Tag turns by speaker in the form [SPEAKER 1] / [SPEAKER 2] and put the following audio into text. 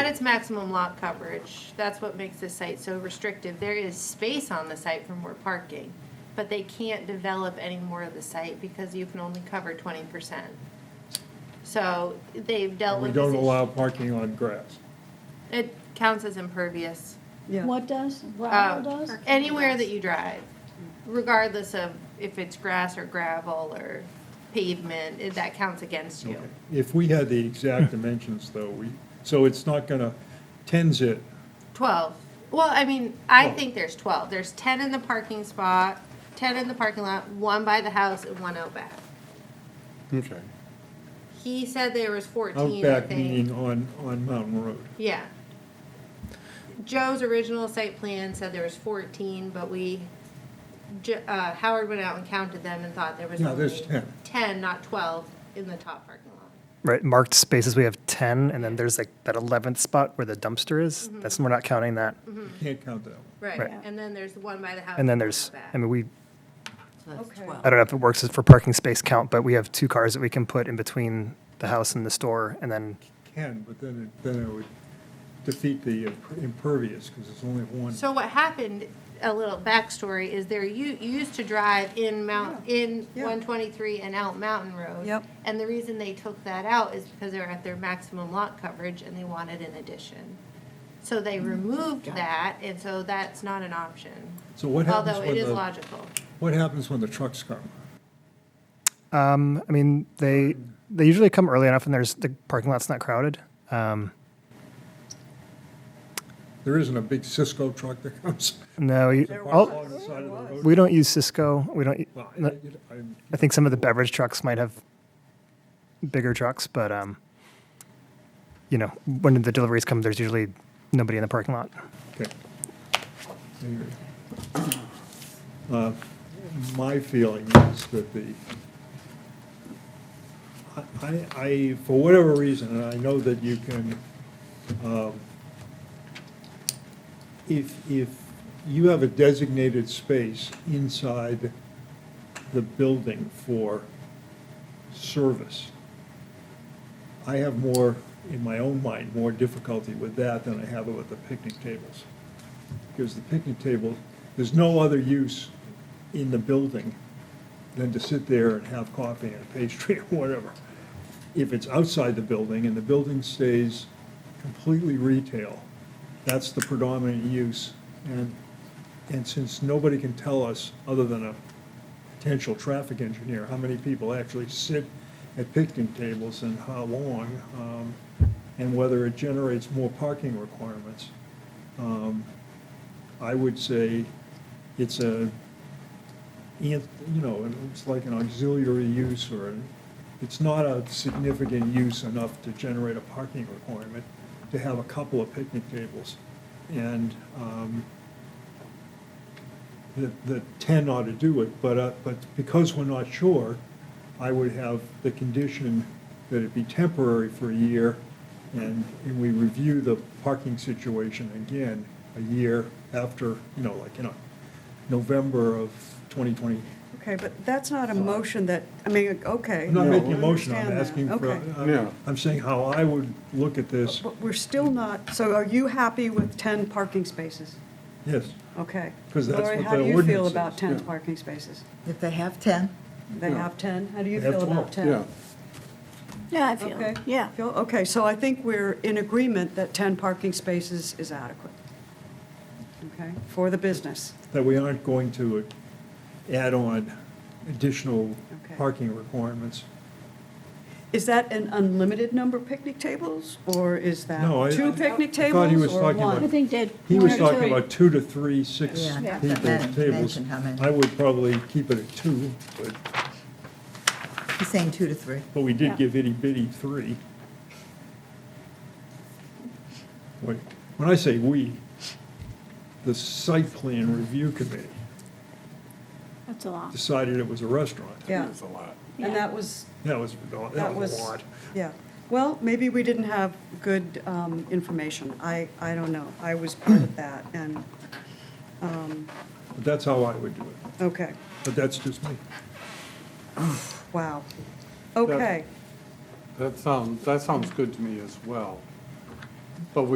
[SPEAKER 1] it's maximum lot coverage. That's what makes this site so restrictive. There is space on the site for more parking, but they can't develop any more of the site because you can only cover twenty percent. So they've dealt
[SPEAKER 2] We
[SPEAKER 1] with this.
[SPEAKER 2] don't
[SPEAKER 1] issue.
[SPEAKER 2] allow parking on grass.
[SPEAKER 1] It counts as impervious.
[SPEAKER 3] Yeah,
[SPEAKER 4] What does, gravel
[SPEAKER 1] Uh,
[SPEAKER 4] does?
[SPEAKER 1] Anywhere that you drive, regardless of if it's grass or gravel or pavement, it- that counts against you.
[SPEAKER 2] Okay. If we had the exact dimensions though, we, so it's not gonna, tens it,
[SPEAKER 1] 12. Well, I mean, I
[SPEAKER 2] Twelve.
[SPEAKER 1] think there's 12. There's 10 in the parking spot, 10 in the parking lot, one by the house, and one out back.
[SPEAKER 2] Okay.
[SPEAKER 1] He said there was 14, I
[SPEAKER 2] Outback meaning
[SPEAKER 1] think.
[SPEAKER 2] on, on Mountain Road.
[SPEAKER 1] Yeah. Joe's original site plan said there was 14, but we, J- uh, Howard went out and counted them and thought there was
[SPEAKER 2] No, there's
[SPEAKER 1] only
[SPEAKER 2] 10.
[SPEAKER 1] 10, not 12, in the top parking lot.
[SPEAKER 5] Right, marked spaces, we have 10, and then there's like that 11th spot where the dumpster is. That's, we're not counting that.
[SPEAKER 2] Mm-hmm.
[SPEAKER 1] Mm-hmm.
[SPEAKER 2] Can't count that one.
[SPEAKER 1] Right,
[SPEAKER 5] Right.
[SPEAKER 1] and then there's the one by the house.
[SPEAKER 5] And then
[SPEAKER 1] one
[SPEAKER 5] there's,
[SPEAKER 1] out back.
[SPEAKER 5] I mean, we,
[SPEAKER 6] So that's
[SPEAKER 3] Okay.
[SPEAKER 6] 12.
[SPEAKER 5] I don't know if it works for parking space count, but we have two cars that we can put in between the house and the store, and then,
[SPEAKER 2] Can, but then it, then it would defeat the impervious, because it's only one.
[SPEAKER 1] So what happened, a little backstory, is there, you, you used to drive in Mount, in
[SPEAKER 3] Yeah.
[SPEAKER 1] one twenty-three and out Mountain Road.
[SPEAKER 3] Yep.
[SPEAKER 1] And the reason they took that out is because they're at their maximum lot coverage and they wanted an addition. So they
[SPEAKER 3] Mm.
[SPEAKER 1] removed that, and so that's not an option.
[SPEAKER 2] So what happens
[SPEAKER 1] Although it
[SPEAKER 2] when
[SPEAKER 1] is
[SPEAKER 2] the-
[SPEAKER 1] logical.
[SPEAKER 2] What happens when the trucks come?
[SPEAKER 5] um, I mean, they, they usually come early enough and there's, the parking lot's not crowded. Um,
[SPEAKER 2] There isn't a big Cisco truck that comes.
[SPEAKER 5] No, you,
[SPEAKER 2] and parks
[SPEAKER 5] all,
[SPEAKER 2] along the side of the road.
[SPEAKER 5] we don't use Cisco, we don't,
[SPEAKER 2] Well, I-
[SPEAKER 5] no,
[SPEAKER 2] I- I'm-
[SPEAKER 5] I think some of the beverage trucks might have bigger trucks, but, um, you know, when the deliveries come, there's usually nobody in the parking lot.
[SPEAKER 2] Okay. Anyway. Uh, My feeling is that the, I- I, I, for whatever reason, and I know that you can, um, if, if you have a designated space inside the building for service, I have more, in my own mind, more difficulty with that than I have with the picnic tables. Because the picnic table, there's no other use in the building than to sit there and have coffee and pastry or whatever. If it's outside the building and the building stays completely retail, that's the predominant use. And, and since nobody can tell us, other than a potential traffic engineer, how many people actually sit at picnic tables and how long, um, and whether it generates more parking requirements. Um, I would say it's a, you know, it's like an auxiliary use or, an- it's not a significant use enough to generate a parking requirement to have a couple of picnic tables. And, um, that, that 10 ought to do it, but, uh, but because we're not sure, I would have the condition that it be temporary for a year, and, and we review the parking situation again a year after, you know, like, you know, November of 2020.
[SPEAKER 3] okay, but that's not a motion that, I mean, okay.
[SPEAKER 2] I'm not
[SPEAKER 3] I
[SPEAKER 2] making a motion, I'm
[SPEAKER 3] understand that.
[SPEAKER 2] asking for,
[SPEAKER 3] Okay. Uh,
[SPEAKER 2] I'm- I'm saying how I would look at this,
[SPEAKER 3] But we're still not, so are you happy with 10 parking spaces?
[SPEAKER 2] yes.
[SPEAKER 3] Okay.
[SPEAKER 2] 'Cause that's
[SPEAKER 3] Lori,
[SPEAKER 2] what
[SPEAKER 3] how
[SPEAKER 2] the
[SPEAKER 3] do you feel
[SPEAKER 2] ordinance
[SPEAKER 3] about
[SPEAKER 2] is,
[SPEAKER 3] 10
[SPEAKER 7] yeah.
[SPEAKER 3] parking spaces?
[SPEAKER 6] If they have 10,
[SPEAKER 3] They
[SPEAKER 7] Yeah.
[SPEAKER 3] have 10? How do you
[SPEAKER 2] They have
[SPEAKER 3] feel
[SPEAKER 2] 12,
[SPEAKER 3] about 10?
[SPEAKER 7] Yeah,
[SPEAKER 4] Yeah, I feel
[SPEAKER 3] Okay.
[SPEAKER 4] it, yeah.
[SPEAKER 3] Feel- Okay, so I think we're in agreement that 10 parking spaces is adequate, okay, for the business.
[SPEAKER 2] that we aren't going to add on additional
[SPEAKER 3] Okay.
[SPEAKER 2] parking requirements.
[SPEAKER 3] Is that an unlimited number of picnic tables, or is that
[SPEAKER 2] No, I- I-
[SPEAKER 3] two picnic
[SPEAKER 2] I thought he was
[SPEAKER 3] tables or
[SPEAKER 2] talking
[SPEAKER 3] one?
[SPEAKER 2] about-
[SPEAKER 4] I think that.
[SPEAKER 2] He
[SPEAKER 4] one
[SPEAKER 2] was
[SPEAKER 4] or
[SPEAKER 2] talking
[SPEAKER 4] two-
[SPEAKER 2] about two to three, six
[SPEAKER 6] Yeah,
[SPEAKER 2] people,
[SPEAKER 6] I thought that had
[SPEAKER 2] tables.
[SPEAKER 6] mentioned how many.
[SPEAKER 2] I would probably keep it at two, but,
[SPEAKER 6] he's saying two to three.
[SPEAKER 2] but we
[SPEAKER 4] Yeah.
[SPEAKER 2] did give itty bitty three. When when I say we, the site plan review committee
[SPEAKER 4] That's a lot.
[SPEAKER 2] decided it was a restaurant.
[SPEAKER 3] Yeah,
[SPEAKER 7] that's a lot.
[SPEAKER 3] and that was,
[SPEAKER 2] That was, that
[SPEAKER 3] that
[SPEAKER 2] was
[SPEAKER 3] was,
[SPEAKER 2] a lot.
[SPEAKER 3] yeah. Well, maybe we didn't have good um, information. I, I don't know. I was part of that, and, um,
[SPEAKER 2] But that's how I would do it.
[SPEAKER 3] okay,
[SPEAKER 2] But that's just me.
[SPEAKER 3] wow. Okay.
[SPEAKER 7] That sounds, that sounds good to me as well. But we